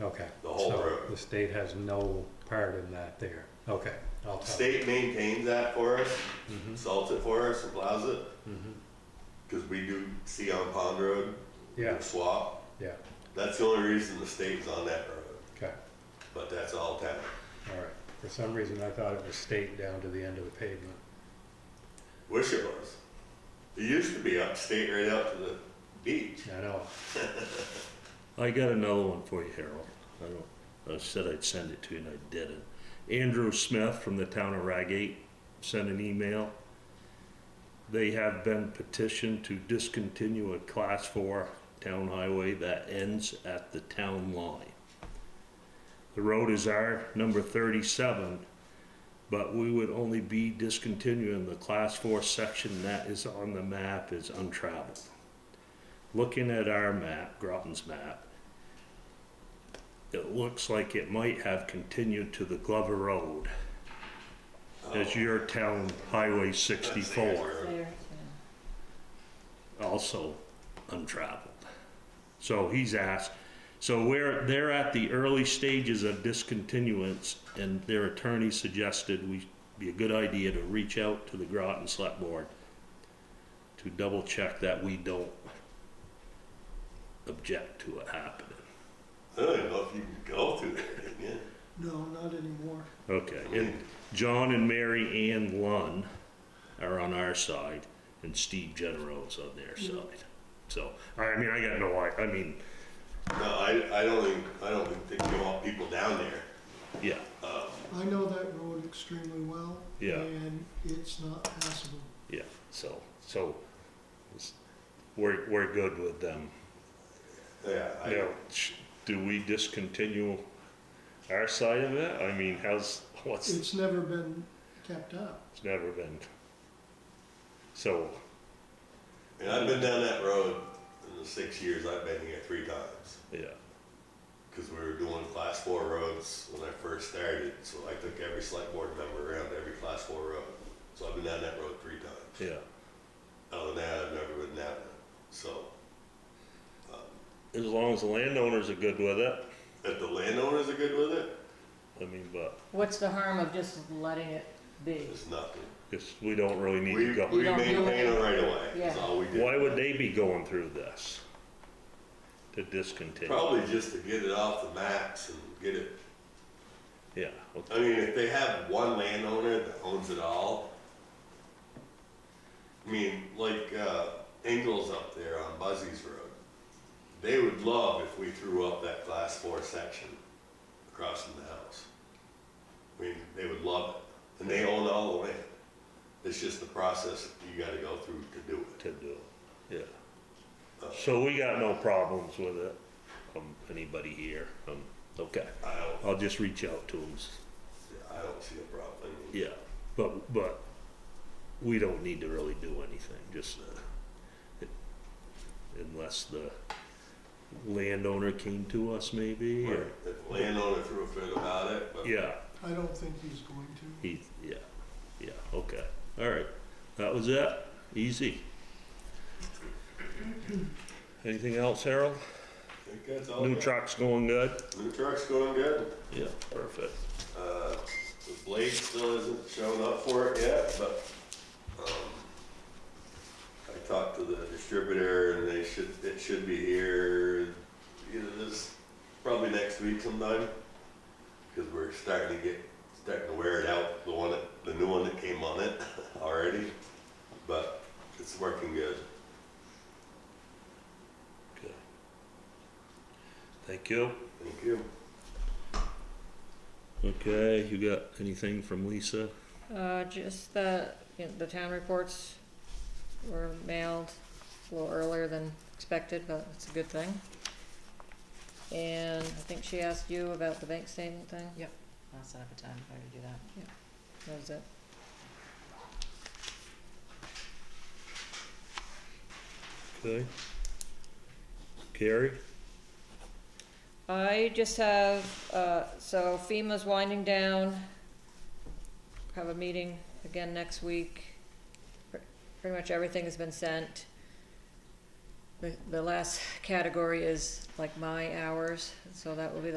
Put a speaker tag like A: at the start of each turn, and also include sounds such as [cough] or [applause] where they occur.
A: Okay.
B: The whole
A: So
B: road.
A: The state has no part in that there. Okay. I'll tell-
B: State maintains that for us,
A: Mhm,
B: salts it for us, and plows it,
A: mhm.
B: because we do see on Pond Road,
A: Yeah,
B: swap.
A: yeah,
B: That's the only reason the state was on that road,
A: okay,
B: but that's all town.
A: all right. For some reason, I thought it was state down to the end of the pavement.
B: Wish it was. It used to be upstate right out to the beach.
A: I know,
C: I got another one for you, Harold. I don't, I said I'd send it to you and I didn't. Andrew Smith from the town of Ragate sent an email. They have been petitioned to discontinue a class four town highway that ends at the town line. The road is our number thirty-seven, but we would only be discontinuing the class four section that is on the map is untraveled looking at our map, Groton's map, it looks like it might have continued to the Glover Road as your town Highway
B: Oh. That's the
C: sixty-four,
B: road.
D: There,
C: also untraveled. So he's asked, so we're, they're at the early stages of discontinuance, and their attorney suggested we, be a good idea to reach out to the Groton Select Board to double check that we don't object to it happening.
B: I don't even know if you can go through there, can you?
E: No, not anymore.
C: Okay, and John and Mary Ann Lunn are on our side, and Steve Genero's on their side. So, I mean, I got no, I, I mean,
B: No, I, I don't think, I don't think they don't want people down there.
C: yeah,
E: I know that road extremely well.
C: Yeah.
E: And it's not passable.
C: yeah, so, so, it's- we're, we're good with them.
B: Yeah, I,
C: Now, sh- do we discontinue our side of it? I mean, how's, what's?
E: It's never been kept up.
C: It's never been. So,
B: and I've been down that road in the six years I've been here three times.
C: yeah,
B: Because we were doing class four roads when I first started, so I took every select board member around every class four road. So I've been down that road three times.
C: yeah.
B: Other than that, I've never been down it. So,
C: As long as the landowners are good with it,
B: if the landowners are good with it,
C: I mean, but
D: What's the harm of just letting it be?
B: it's nothing.
C: it's, we don't really need
B: We,
C: to
B: we
C: go.
D: You don't do
B: maintain
D: it.
B: a right of way, is
D: Yeah.
B: all we
C: Why
B: do.
C: would they be going through this? To discontinue?
B: Probably just to get it off the maps and get it,
C: Yeah, well,
B: I mean, if they have one landowner that owns it all, I mean, like, uh, Ingles up there on Buzzy's Road, they would love if we threw up that class four section across from the house. I mean, they would love it, and they own all the land. It's just the process you gotta go through to do it.
C: to do, it. yeah. So we got no problems with it, um, anybody here, um, okay.
B: Uh, I don't,
C: I'll just reach out to them,
B: I don't see a problem. I mean,
C: yeah, but, but we don't need to really do anything, just, uh, it- unless the landowner came to us maybe, or,
B: If the landowner threw a fit about it, but
C: yeah.
E: I don't think he's going to.
C: He, yeah, yeah, okay, all right, that was it, easy. Anything else, Harold?
B: I think that's all.
C: New
B: I got.
C: truck's going good?
B: New truck's going good.
C: Yeah, perfect.
B: Uh, the blade still isn't showing up for it yet, but, um, I talked to the distributor and they should, it should be here either this, probably next week sometime. Cause we're starting to get, starting to wear it out, the one that, the new one that came on it [laughs] already, but it's working good.
C: Good. Thank you.
B: Thank you.
C: Okay, you got anything from Lisa?
D: Uh, just the, you know, the town reports were mailed a little earlier than expected, but it's a good thing. And I think she asked you about the bank statement thing,
F: I'll set up a time for her to do that.
D: that was it.
C: Okay. Carrie?
D: I just have, uh, so FEMA's winding down. Have a meeting again next week. Pre- Pretty much everything has been sent. The, the last category is like my hours, so that will be the